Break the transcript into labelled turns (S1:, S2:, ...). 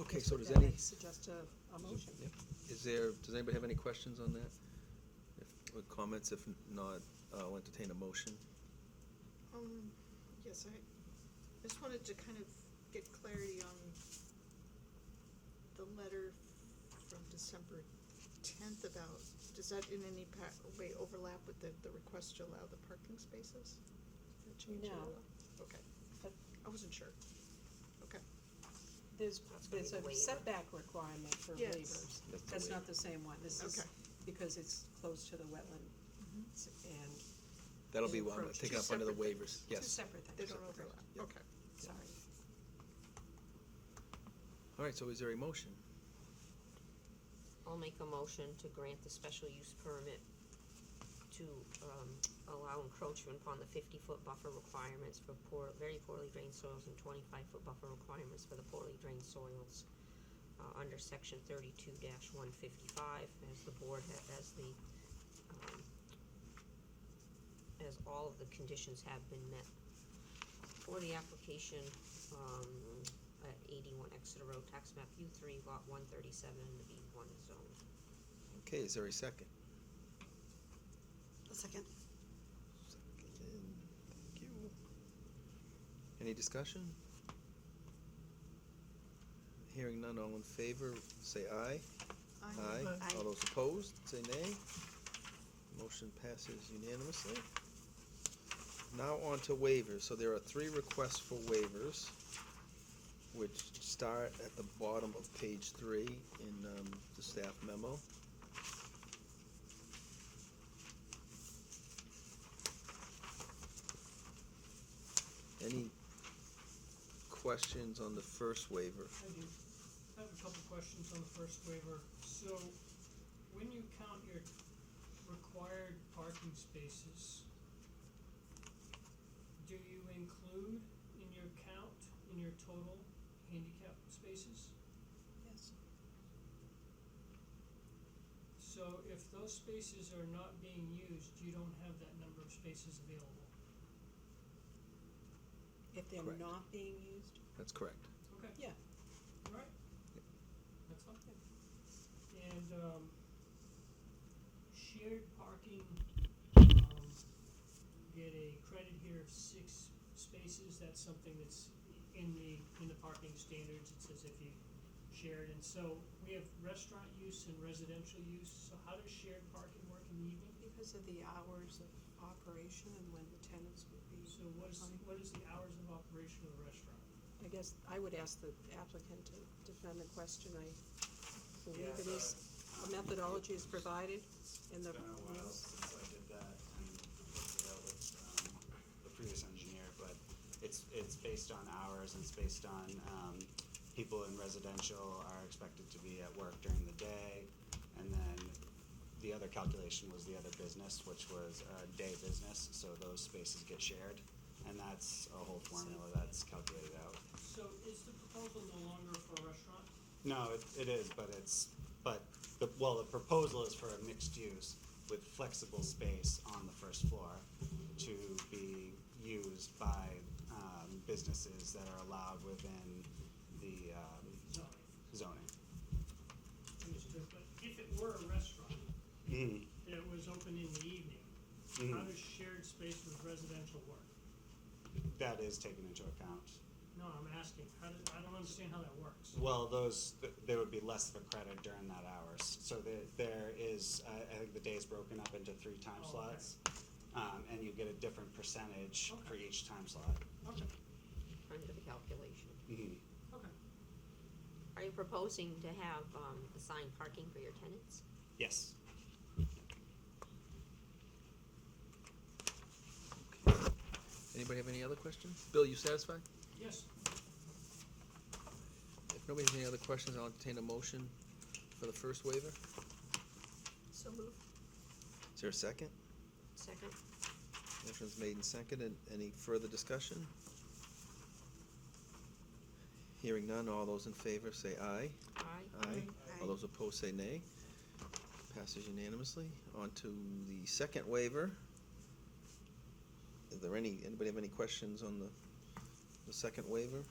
S1: Okay, so does
S2: Then I
S1: any,
S2: Suggest a, a motion.
S1: Yep. is there, does anybody have any questions on that? If- Or comments? If not, uh, I'll entertain a motion.
S3: Um, yes, I just wanted to kind of get clarity on the letter from December tenth about, does that in any pa- way overlap with the, the request to allow the parking spaces? Did that change at
S2: No.
S3: all? Okay,
S2: But-
S3: I wasn't sure. Okay,
S2: There's,
S4: That's gonna
S2: there's
S4: be
S2: a
S4: the waiver.
S2: setback requirement for
S3: Yes.
S2: waivers.
S1: That's the
S2: That's
S1: waiver.
S2: not the same one. This is
S3: Okay. Mm-hmm.
S2: because it's close to the wetland s- and
S1: That'll be one,
S2: Approach.
S1: taken
S3: Two
S1: up under the
S3: separate
S1: waivers,
S2: two
S1: yes.
S2: separate things.
S3: they don't
S2: Separate.
S3: overlap,
S1: Yep.
S3: okay.
S2: Sorry.
S1: All right, so is there a motion?
S4: I'll make a motion to grant the special use permit to, um, allow encroachment upon the fifty-foot buffer requirements for poor, very poorly drained soils and twenty-five-foot buffer requirements for the poorly drained soils, uh, under section thirty-two one fifty-five, as the board ha- as the, um, as all of the conditions have been met for the application, um, at eighty-one Exeter Road, tax map U three, lot one thirty-seven, in the B one zone.
S1: Okay, is there a second?
S2: A second.
S1: Thank you. Any discussion? Hearing none, all in favor, say aye.
S3: I
S4: Aye.
S1: All those opposed, say nay. Motion passes unanimously. Now on to waivers. So there are three requests for waivers, which start at the bottom of page three in um, the staff memo. Any questions on the first waiver?
S5: I do. I have a couple questions on the first waiver. So, when you count your required parking spaces, do you include in your count, in your total, handicap spaces?
S2: Yes.
S5: So if those spaces are not being used, you don't have that number of spaces available.
S2: If they're
S1: Correct.
S2: not being used,
S1: That's correct.
S5: Okay.
S2: Yeah.
S5: Alright. That's all. And, um, shared parking, um, get a credit here of six spaces, that's something that's in the, in the parking standards, it says if you shared, and so we have restaurant use and residential use, so how does shared parking work in the evening?
S2: because of the hours of operation and when the tenants would be.
S5: So what is, what is the hours of operation of the restaurant?
S2: I guess I would ask the applicant to defend the question. I believe it is, a methodology is provided in the
S6: It's been a while
S2: rules.
S6: since I did that and worked it out with um, the previous engineer, but it's, it's based on hours and it's based on, um, people in residential are expected to be at work during the day. And then the other calculation was the other business, which was a day business, so those spaces get shared. And that's a whole formula that's calculated out.
S5: So is the proposal no longer for a restaurant?
S6: No, it, it is, but it's, but, the, well, the proposal is for a mixed use with flexible space on the first floor to be used by, um, businesses that are allowed within the, um,
S5: Zoning.
S6: zoning.
S5: Understood, but if it were a restaurant
S6: Mhm.
S5: that was open in the evening, how
S6: Mhm.
S5: does shared space with residential work?
S6: That is taken into account.
S5: No, I'm asking, how does, I don't understand how that works.
S6: Well, those, th- there would be less of a credit during that hours, so there, there is, I, I think the day is broken up into three time
S5: Oh, okay.
S6: slots. Um, and you get a different percentage for
S5: Okay.
S6: each time slot.
S5: Okay,
S4: under the calculation.
S6: Mhm.
S5: okay.
S4: Are you proposing to have, um, assigned parking for your tenants?
S6: Yes.
S1: Anybody have any other questions? Bill, you satisfied?
S5: Yes,
S1: If nobody has any other questions, I'll entertain a motion for the first waiver.
S3: So moved.
S1: Is there a second?
S4: Second?
S1: Motion's made and seconded. Any further discussion? Hearing none, all those in favor say aye.
S4: Aye.
S1: Aye.
S3: Aye.
S1: All those opposed say nay. Passes unanimously. On to the second waiver. Is there any, anybody have any questions on the, the second waiver?